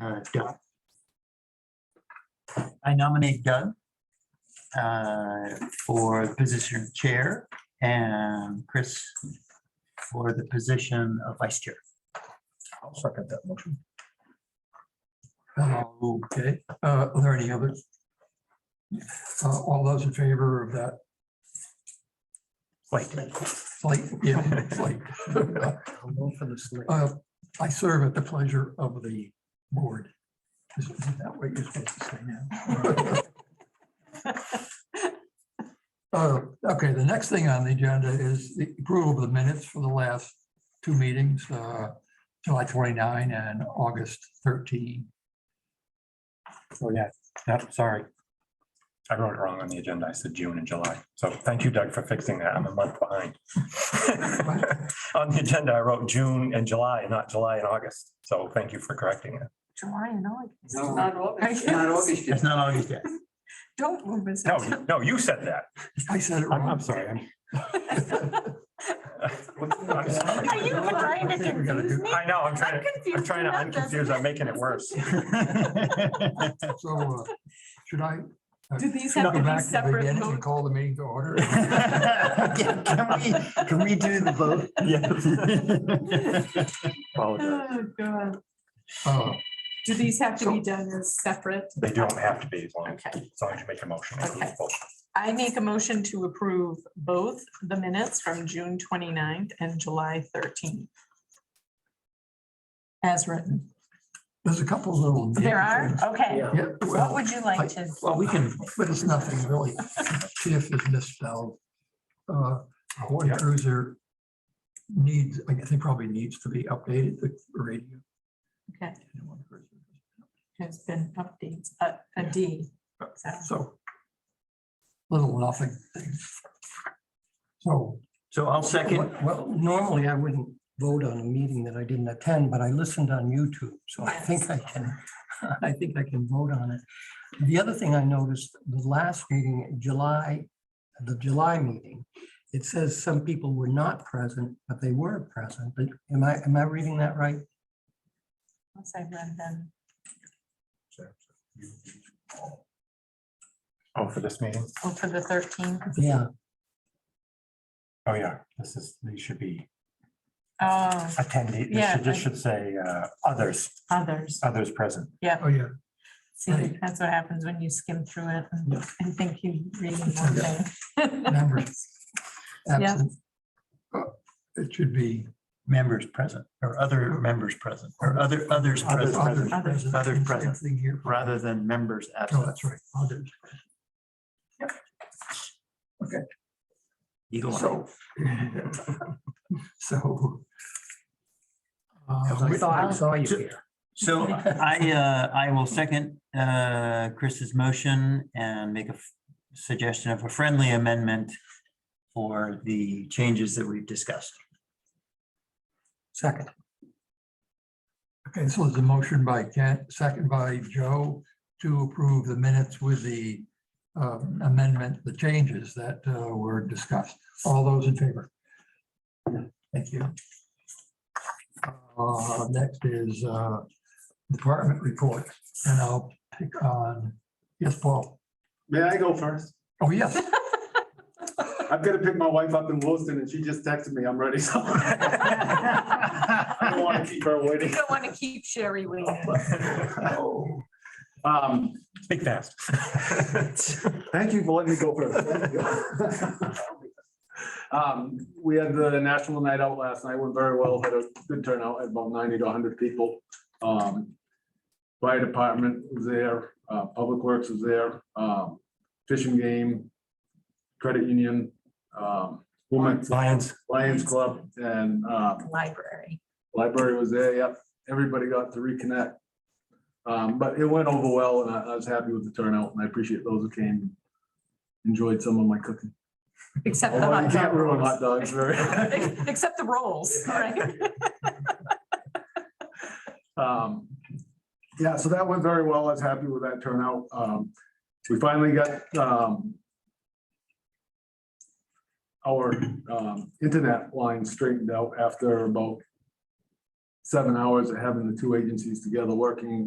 uh, Doug. I nominate Doug uh, for the position of chair and Chris for the position of vice chair. I'll second that motion. Okay, uh, are there any others? Uh, all those in favor of that Wait, slate, yeah, slate. I'll go for the slate. Uh, I serve at the pleasure of the board. Is is that what you're supposed to say now? Uh, okay, the next thing on the agenda is the approval of the minutes for the last two meetings, uh, July twenty-nine and August thirteen. Oh, yeah, Yep, sorry. I wrote it wrong on the agenda. I said June and July. So thank you, Doug, for fixing that. I'm a month behind. On the agenda, I wrote June and July, not July and August. So thank you for correcting that. July and August. No. Not August. Not August yet. That's not August yet. Don't move us. No, you- no, you said that. I said it I'm, wrong. I'm sorry. I'm- I'm Are you sorry. trying to confuse me? I know, I'm trying I'm to, I'm confused. trying to enough as it unconfuse. I'm making it is. worse. So, uh, should I Do these go have to be back to the separate beginning and votes? call the meeting to order? Yeah, Can we- can we do the vote? Apologize. Oh, God. Uh, Do these have to So- be done as separate? They don't have to be as long, Okay. as long as you make a motion. Okay. I make a motion to approve both the minutes from June 29th and July thirteenth. As written. There's a couple little. There are? Okay. Yeah. Yeah, What well, would you like to? Well, we can, but it's nothing really. Tiff is misspelled. Uh, One Yeah. cruiser needs, I think probably needs to be updated, the radio. Okay, and one cruiser. has been updates, a, a D. So, So little nothing. things. So So I'll second. Well, well, normally I wouldn't vote on a meeting that I didn't attend, but I listened on YouTube, so I think I can, I think I can vote on it. The other thing I noticed, the last meeting, July, the July meeting, it says some people were not present, but they were present. But am I, am I reading that right? once I read them, Oh, for this meeting? oh, for the thirteenth. Yeah, Oh, yeah, this is, these should be Oh, attendee. This Yeah, should, this I- should say uh, others, others. others present. Oh, yeah. See, that's what happens when you skim through it and- Yeah. and think you read one thing. Members. absent. Uh, It should be. Members present or other members present or other, others others present Oh, others Others. present. Others Same present. Thing here. rather than members No, absent. that's right. Others. Eagle eye. So. So. uh, because I thought I saw you So- here. So I, uh, I will second uh, Chris's motion and make a f- suggestion of a friendly amendment for the changes that we've discussed. Second, Okay, so there's a motion by Kent, second by Joe to approve the minutes with the um, amendment, the changes that uh, were discussed. All those in favor? Thank you. Uh, Next is uh, department report, and I'll pick on, yes, Paul. May I go first? Oh, yes, I've got to pick my wife up in Williston and she just texted me, I'm ready. So I don't want to keep her You waiting. don't want to keep Sherry waiting. Um, Speak fast. Thank you for letting me go first. Um, we had the National Night Out last night, went very well, had a good turnout, had about ninety to hundred people. Um, Fire department was there, uh, Public Works was there, um, fishing game, credit union, um, women's Lions. Lions Club and, um, Library. Library was there, yep. Everybody got to reconnect. Um, but it went over well and I, I was happy with the turnout and I appreciate those who came. Enjoyed some of my cooking. Except the Although you hot can't ruin hot dog. dogs very. rolls. Except the rolls, right? Um, yeah, so that went very well. I was happy with that turnout. Um, we finally got, um, our, um, internet line straightened out after about seven hours of having the two agencies together working